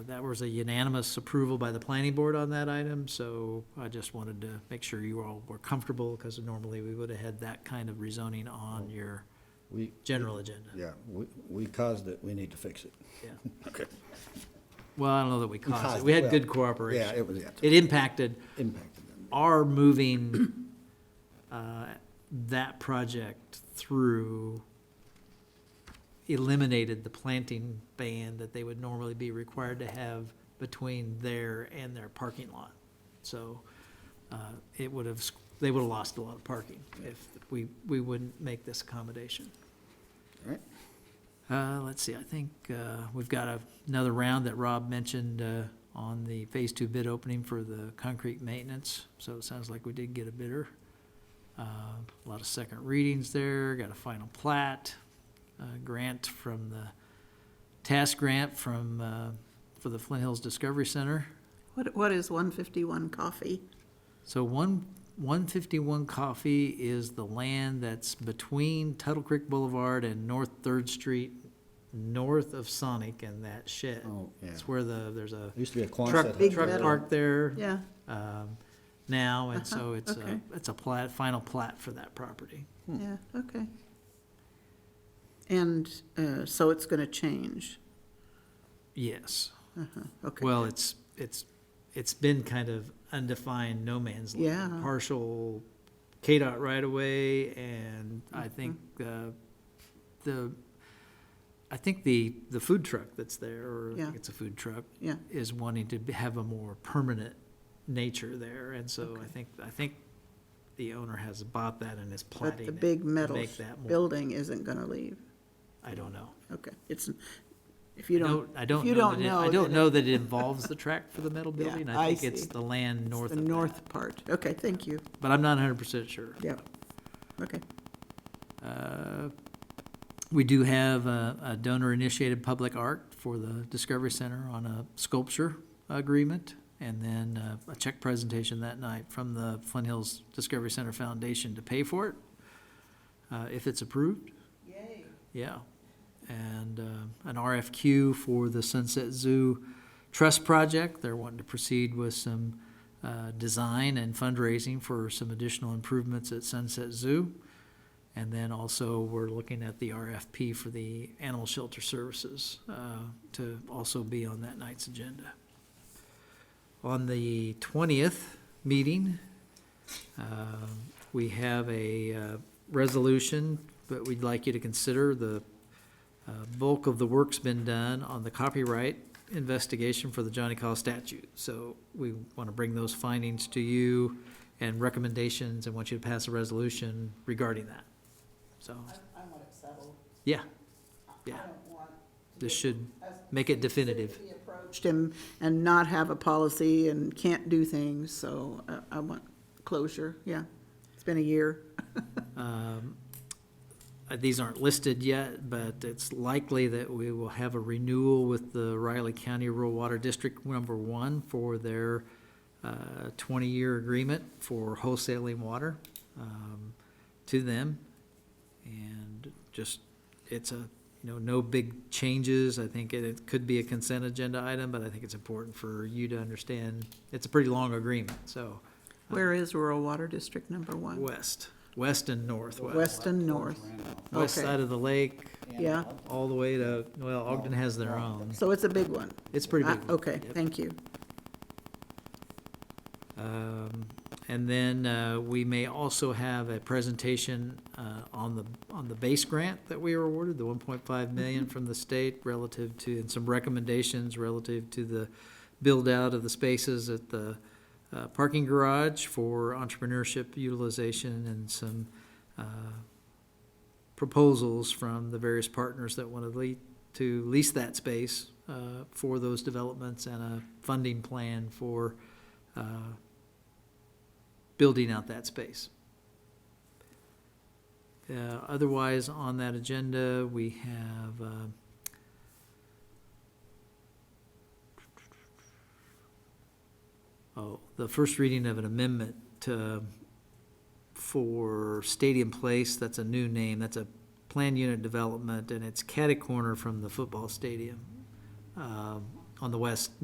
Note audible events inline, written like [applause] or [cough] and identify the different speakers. Speaker 1: That was a unanimous approval by the planning board on that item, so I just wanted to make sure you all were comfortable, because normally we would have had that kind of rezoning on your
Speaker 2: We,
Speaker 1: general agenda.
Speaker 2: yeah, we, we caused it, we need to fix it. [laughs]
Speaker 1: Yeah.
Speaker 2: Okay.
Speaker 1: Well, I don't know that we caused it. We had good
Speaker 2: Yeah,
Speaker 1: cooperation.
Speaker 2: it was, yeah,
Speaker 1: It
Speaker 2: it
Speaker 1: impacted
Speaker 2: impacted them.
Speaker 1: our moving uh, that project through eliminated the planting ban that they would normally be required to have between there and their parking lot. So uh, it would have, they would have lost a lot of parking if we, we wouldn't make this accommodation.
Speaker 2: All right.
Speaker 1: Uh, let's see, I think, uh, we've got a- another round that Rob mentioned, uh, on the phase two bid opening for the concrete maintenance, so it sounds like we did get a bidder. Uh, a lot of second readings there, got a final plat, uh, grant from the, task grant from, uh, for the Flint Hills Discovery Center.
Speaker 3: What, what is one fifty-one coffee?
Speaker 1: So one, one fifty-one Coffee is the land that's between Tuttle Creek Boulevard and North Third Street, north of Sonic and that shed.
Speaker 2: Oh, yeah.
Speaker 1: It's where the, there's a
Speaker 2: There used to be a
Speaker 1: truck,
Speaker 2: Quonset.
Speaker 3: Big
Speaker 1: truck
Speaker 3: metal.
Speaker 1: park there,
Speaker 3: Yeah,
Speaker 1: um, now, and so
Speaker 3: Uh-huh,
Speaker 1: it's a,
Speaker 3: okay.
Speaker 1: it's a plat, final plat for that property.
Speaker 3: yeah, okay. And, uh, so it's gonna change, Uh-huh,
Speaker 1: Yes,
Speaker 3: okay.
Speaker 1: well, it's, it's, it's been kind of undefined no man's land.
Speaker 3: Yeah.
Speaker 1: Partial KDOT right away, and
Speaker 3: Mm-hmm.
Speaker 1: I think, uh, the, I think the, the food truck that's there, or I think
Speaker 3: Yeah.
Speaker 1: it's a food truck,
Speaker 3: Yeah,
Speaker 1: is wanting to be- have a more permanent nature there, and so I
Speaker 3: Okay.
Speaker 1: think, I think the owner has bought that and is
Speaker 3: but
Speaker 1: plotting
Speaker 3: the
Speaker 1: it
Speaker 3: big
Speaker 1: to
Speaker 3: metal
Speaker 1: make that more-
Speaker 3: building isn't gonna leave,
Speaker 1: I don't know.
Speaker 3: okay, it's, if you
Speaker 1: I
Speaker 3: don't.
Speaker 1: I don't
Speaker 3: if you
Speaker 1: know
Speaker 3: don't
Speaker 1: that it- I
Speaker 3: know,
Speaker 1: don't
Speaker 3: then
Speaker 1: know
Speaker 3: it-
Speaker 1: that it involves the track for the metal
Speaker 3: [laughs] Yeah,
Speaker 1: building,
Speaker 3: I
Speaker 1: I think it's
Speaker 3: see.
Speaker 1: the land
Speaker 3: it's
Speaker 1: north
Speaker 3: The
Speaker 1: of that,
Speaker 3: north part, okay, thank you,
Speaker 1: but I'm not hundred percent sure.
Speaker 3: yeah, okay.
Speaker 1: Uh, We do have a a donor-initiated public art for the Discovery Center on a sculpture agreement, and then uh, a check presentation that night from the Flint Hills Discovery Center Foundation to pay for it, uh, if it's approved.
Speaker 3: Yay.
Speaker 1: Yeah, and uh, an RFQ for the Sunset Zoo Trust Project. They're wanting to proceed with some uh, design and fundraising for some additional improvements at Sunset Zoo. And then also, we're looking at the RFP for the Animal Shelter Services uh, to also be on that night's agenda. On the 20th meeting, um, we have a uh, resolution that we'd like you to consider. The uh, bulk of the work's been done on the copyright investigation for the Johnny Call statute. So we want to bring those findings to you and recommendations and want you to pass a resolution regarding that. So,
Speaker 3: I want it settled,
Speaker 1: yeah, yeah,
Speaker 3: want
Speaker 1: this should make it definitive.
Speaker 3: approached him and not have a policy and can't do things, so uh, I want closure, yeah. It's been a year.
Speaker 1: Um, uh, These aren't listed yet, but it's likely that we will have a renewal with the Riley County Rural Water District Number One for their uh, 20-year agreement for wholesaling water um, to them. And just, it's a, you know, no big changes. I think it- it could be a consent agenda item, but I think it's important for you to understand, it's a pretty long agreement, so
Speaker 3: Where is rural water district number one?
Speaker 1: west, west and northwest.
Speaker 3: West and north,
Speaker 1: west
Speaker 3: Okay.
Speaker 1: side of the lake,
Speaker 3: yeah,
Speaker 1: all the way to, well, Ogden has their own.
Speaker 3: so it's a big one.
Speaker 1: It's pretty
Speaker 3: Ah,
Speaker 1: big.
Speaker 3: Okay,
Speaker 1: Yep.
Speaker 3: thank you.
Speaker 1: Um, And then uh, we may also have a presentation uh, on the, on the base grant that we were awarded, the 1.5 million from the state relative to, and some recommendations relative to the build-out of the spaces at the uh, parking garage for entrepreneurship utilization and some uh, proposals from the various partners that want to lead, to lease that space uh, for those developments and a funding plan for uh, building out that space. Uh, Otherwise, on that agenda, we have uh, oh, the first reading of an amendment to, for Stadium Place, that's a new name, that's a planned unit development, and it's catty corner from the football stadium um, on the west